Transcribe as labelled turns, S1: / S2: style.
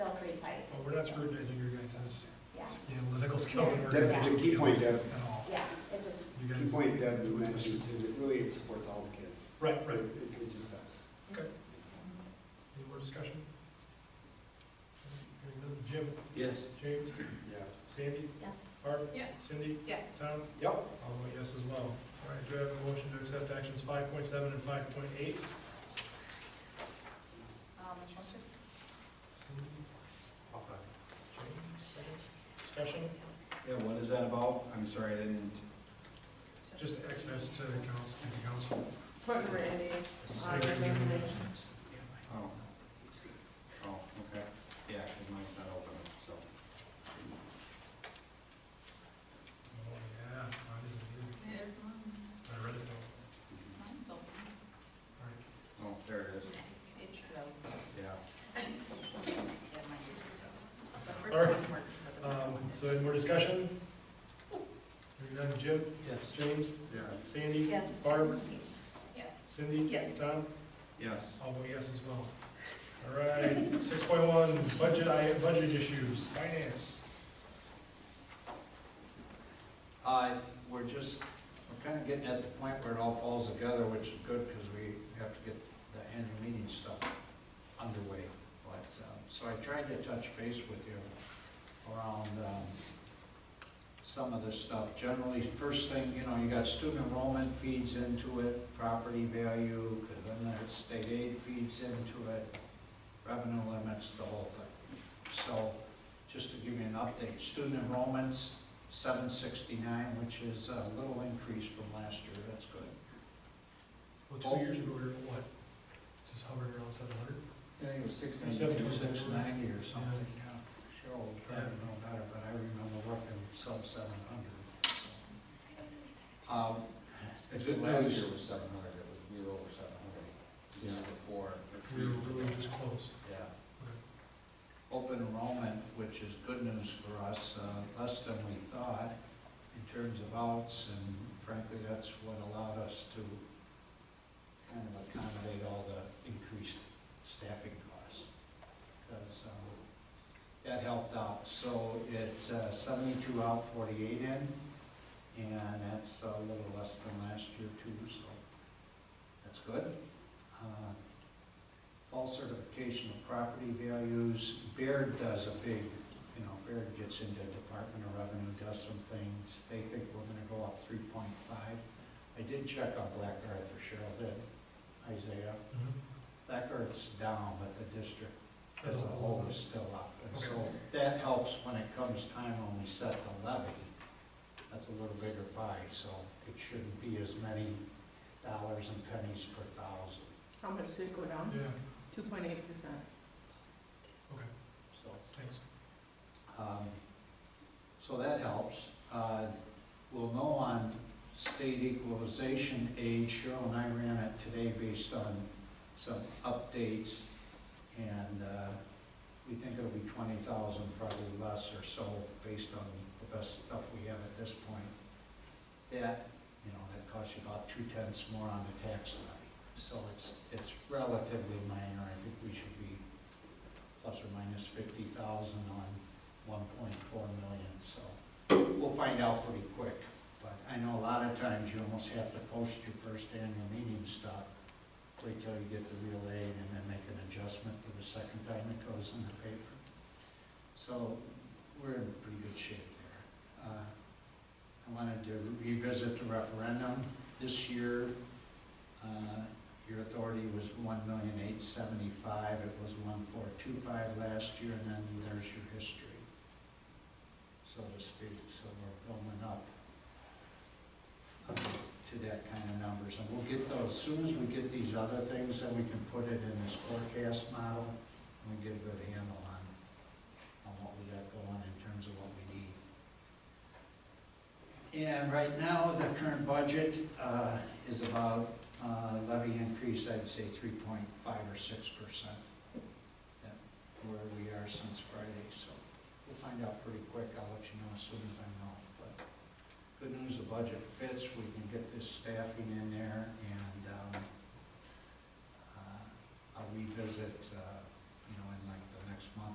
S1: that's scrutinizing your guys'
S2: Yeah,
S1: analytical skills and
S3: That's a
S1: organizational
S3: good key point,
S1: skills at
S3: Deb.
S1: all.
S2: yeah, it's just,
S1: You
S3: Key
S1: guys,
S3: point Deb, you mentioned, is it really it supports all the kids.
S1: right, right.
S3: It it just does.
S1: Any more discussion? Hearing none. Jim,
S4: Yes.
S1: James,
S3: Yeah.
S1: Sandy,
S2: yes.
S1: Barb,
S5: Yes.
S1: Cindy,
S5: Yes.
S1: Tom?
S3: Yep.
S1: I'll vote yes as well. All right, do I have a motion to accept actions five point seven and five point eight?
S5: Um, motion?
S1: Cindy,
S3: I'll second.
S1: James, second. Discussion,
S4: Yeah, what is that about? I'm sorry, I didn't.
S1: just access to council, the council.
S5: Put Randy on the recommendation.
S4: Oh. Oh, okay. Yeah, because mine's not open, so.
S1: Oh, yeah, mine isn't here.
S5: There's one.
S1: I read it though.
S5: Mine's open.
S1: All right.
S4: Oh, there it is.
S5: It's low.
S4: Yeah.
S5: Yeah, mine is. The
S1: All
S5: first
S1: right.
S5: one works, but the second
S1: Um,
S5: one
S1: so any more discussion? Hearing none, Jim,
S4: Yes.
S1: James,
S3: Yeah.
S1: Sandy?
S2: Yes.
S1: Barb,
S5: Yes.
S1: Cindy?
S5: Yes.
S1: Tom?
S4: Yes.
S1: I'll vote yes as well. All right, six point one, budget, I, budget issues, finance.
S6: Uh, we're just, we're kind of getting at the point where it all falls together, which is good, because we have to get the annual meeting stuff underway. But, um, so I tried to touch base with you around, um, some of this stuff. Generally, first thing, you know, you got student enrollment feeds into it, property value, because then the state aid feeds into it, revenue limits, the whole thing. So, just to give you an update, student enrollments, seven sixty-nine, which is a little increase from last year, that's good.
S1: Well, two years ago, we were, at what, just hovering around seven hundred?
S6: I think it was six
S1: Seven.
S6: Six ninety or something, yeah. Cheryl would probably know better, but I remember working sub seven hundred. Um, the
S4: Last
S6: good
S4: year
S6: news,
S4: was seven hundred, it was, we were over seven hundred. The year before. the
S1: We
S4: year
S1: were really
S4: before.
S1: just close.
S4: Yeah.
S6: open enrollment, which is good news for us, uh, less than we thought in terms of outs, and frankly, that's what allowed us to kind of accommodate all the increased staffing costs. Because that helped out. So it's uh, seventy-two out, forty-eight in, and that's a little less than last year too, so that's good. Uh, False certification of property values, Baird does a big, you know, Baird gets into Department of Revenue, does some things, they think we're gonna go up three point five. I did check on Black Earth, or Cheryl did, Isaiah, Black Earth's down, but the district as a whole is still up. And so that helps when it comes time when we set the levy, that's a little bigger pie, so it shouldn't be as many dollars and pennies per thousand,
S5: How much did it go down?
S1: Yeah,
S5: Two point eight percent.
S1: okay,
S6: so.
S1: thanks.
S6: Um, So that helps. Uh, We'll know on state equalization aid, Cheryl and I ran it today based on some updates, and uh, we think it'll be twenty thousand, probably less or so, based on the best stuff we have at this point. That, you know, that costs you about two tenths more on the tax levy, so it's, it's relatively minor. I think we should be plus or minus fifty thousand on one point four million, so we'll find out pretty quick. But I know a lot of times you almost have to post your first annual meeting stuff, wait till you get the real aid and then make an adjustment for the second time it goes in the paper. So we're in pretty good shape there. Uh, I wanted to revisit the referendum. This year, uh, your authority was one million eight seventy-five, it was one four two five last year, and then there's your history, so to speak, so we're building up uh, to that kind of numbers, and we'll get those, as soon as we get these other things, then we can put it in this forecast model, and we get a good handle on, on what we got going in terms of what we need. And right now, the current budget, uh, is about uh, levy increase, I'd say three point five or six percent. That where we are since Friday, so we'll find out pretty quick, I'll let you know as soon as I know. But good news, the budget fits, we can get this staffing in there, and, um, uh, I'll revisit, uh, you know, in like the next month